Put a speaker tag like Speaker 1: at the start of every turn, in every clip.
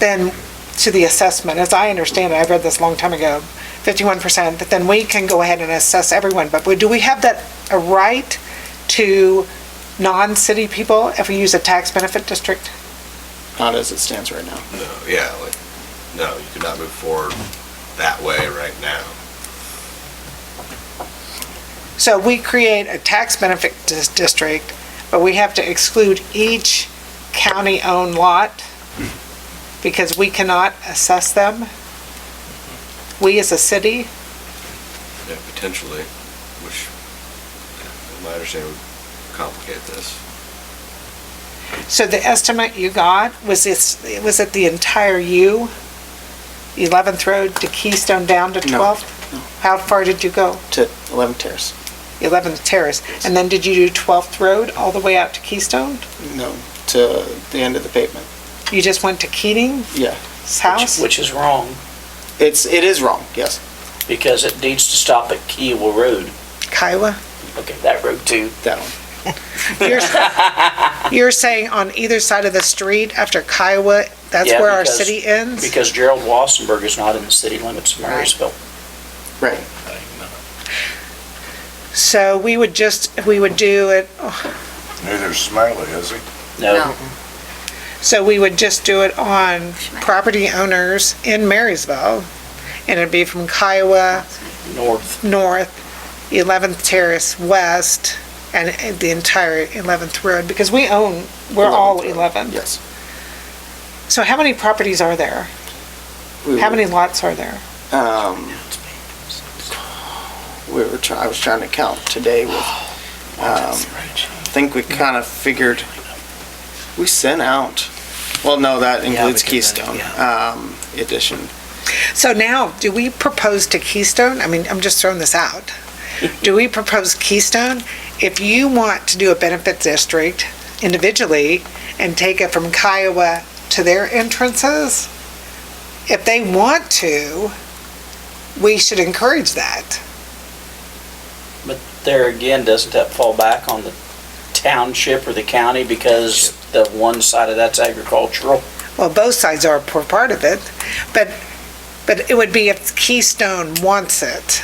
Speaker 1: then to the assessment, as I understand it, I read this a long time ago, 51%, that then we can go ahead and assess everyone, but do we have that, a right to non-city people if we use a tax benefit district?
Speaker 2: not as it stands right now.
Speaker 3: No, yeah, like, no, you could not move forward that way right now.
Speaker 1: So we create a tax benefit dis- district, but we have to exclude each county-owned lot because we cannot assess them? We as a city?
Speaker 3: Yeah, potentially, which, in my understanding, would complicate this.
Speaker 1: So the estimate you got, was this, was it the entire U? 11th Road to Keystone down to
Speaker 2: No,
Speaker 1: 12th?
Speaker 2: no.
Speaker 1: How far did you go?
Speaker 2: To 11 Terrace.
Speaker 1: 11th Terrace? And then did you do 12th Road all the way out to Keystone?
Speaker 2: No, to the end of the pavement.
Speaker 1: You just went to Keating's
Speaker 2: Yeah.
Speaker 1: house?
Speaker 4: Which is wrong,
Speaker 2: It's, it is wrong, yes.
Speaker 4: because it needs to stop at Kiowa Road.
Speaker 1: Kiowa?
Speaker 4: Okay, that road too.
Speaker 2: That one.
Speaker 1: You're, you're saying on either side of the street after Kiowa, that's
Speaker 4: Yeah,
Speaker 1: where our
Speaker 4: because-
Speaker 1: city ends?
Speaker 4: Because Gerald Wassenberg is not in the city limits of Marysville.
Speaker 2: Right.
Speaker 1: So we would just, we would do it,
Speaker 5: Neither Smiley, is he?
Speaker 4: No,
Speaker 1: so we would just do it on property owners in Marysville. And it'd be from Kiowa
Speaker 4: north,
Speaker 1: north, 11th Terrace west, and the entire 11th Road, because we own, we're all
Speaker 2: 11th.
Speaker 1: 11.
Speaker 2: Yes.
Speaker 1: So how many properties are there?
Speaker 2: We
Speaker 1: How
Speaker 2: were-
Speaker 1: many lots are there?
Speaker 2: Um, we were try, I was trying to count today with,
Speaker 1: Oh,
Speaker 2: um, I think we kind of figured, we sent out, well, no, that includes
Speaker 4: because that-
Speaker 2: Keystone, um, addition.
Speaker 1: So now, do we propose to Keystone, I mean, I'm just throwing this out. Do we propose Keystone? If you want to do a benefit district individually and take it from Kiowa to their entrances, if they want to, we should encourage that.
Speaker 4: but there again, doesn't that fall back on the township or the county because the one side of that's agricultural?
Speaker 1: Well, both sides are a poor part of it, but, but it would be if Keystone wants it.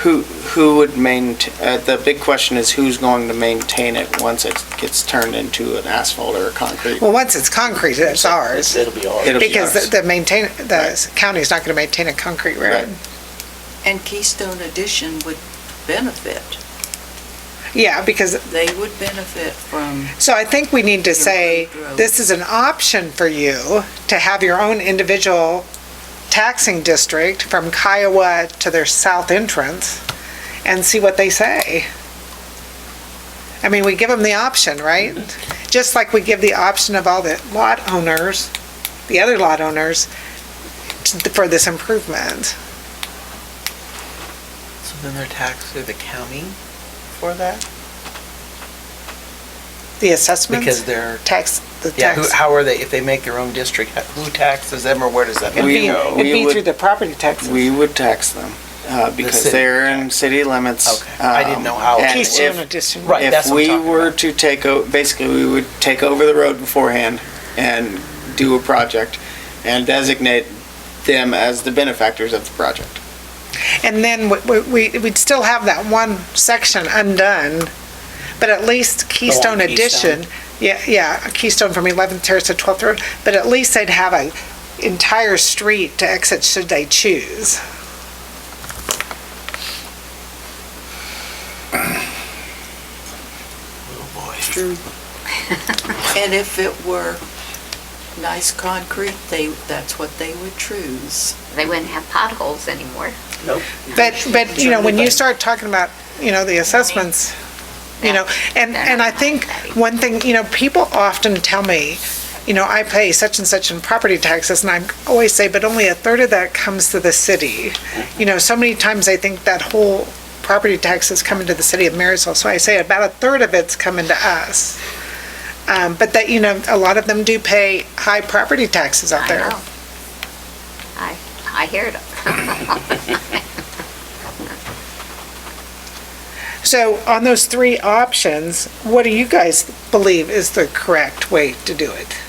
Speaker 2: Who, who would maintain, uh, the big question is who's going to maintain it once it gets turned into an asphalt or a concrete?
Speaker 1: Well, once it's concrete, it's ours.
Speaker 4: It'll be ours.
Speaker 2: It'll be
Speaker 1: Because
Speaker 2: ours.
Speaker 1: the- the maintain, the county's not gonna maintain a concrete
Speaker 2: Right.
Speaker 1: road.
Speaker 6: And Keystone Edition would benefit.
Speaker 1: Yeah, because,
Speaker 6: They would benefit from,
Speaker 1: so I think we need to say, this is an option for you to have your own individual taxing district from Kiowa to their south entrance and see what they say. I mean, we give them the option, right? Just like we give the option of all the lot owners, the other lot owners, to- for this improvement.
Speaker 7: So then they're taxed through the county for that?
Speaker 1: The assessments?
Speaker 7: Because they're,
Speaker 1: Tax, the
Speaker 7: yeah, who-
Speaker 1: tax.
Speaker 7: how are they, if they make their own district, who taxes them or where does that?
Speaker 1: It'd
Speaker 2: We-
Speaker 1: be, it'd
Speaker 2: we
Speaker 1: be
Speaker 2: would-
Speaker 1: through the property taxes.
Speaker 2: We would tax them, uh, because
Speaker 7: city.
Speaker 2: they're in city limits.
Speaker 7: Okay. I didn't
Speaker 2: um,
Speaker 7: know how-
Speaker 2: and
Speaker 1: Keystone
Speaker 2: if-
Speaker 1: addition.
Speaker 7: Right, that's
Speaker 2: If
Speaker 7: what I'm
Speaker 2: we
Speaker 7: talking
Speaker 2: were
Speaker 7: about.
Speaker 2: to take, o- basically, we would take over the road beforehand and do a project and designate them as the benefactors of the project.
Speaker 1: And then we- we, we- we'd still have that one section undone, but at least Keystone Edition, yeah, yeah, Keystone from 11th Terrace to 12th Road, but at least they'd have a entire street to exit should they choose.
Speaker 7: Oh,
Speaker 6: and if it were nice concrete, they, that's what they would choose.
Speaker 8: they wouldn't have potholes anymore.
Speaker 1: But, but, you know, when you start talking about, you know, the assessments, you know, and, and I think one thing, you know, people often tell me, you know, I pay such and such in property taxes, and I always say, but only a third of that comes to the city. You know, so many times I think that whole property tax is coming to the city of Marysville, so I say about a third of it's coming to us. Um, but that, you know, a lot of them do pay high property taxes out
Speaker 8: I
Speaker 1: there.
Speaker 8: know. I, I hear it.
Speaker 1: So on those three options, what do you guys believe is the correct way to do it?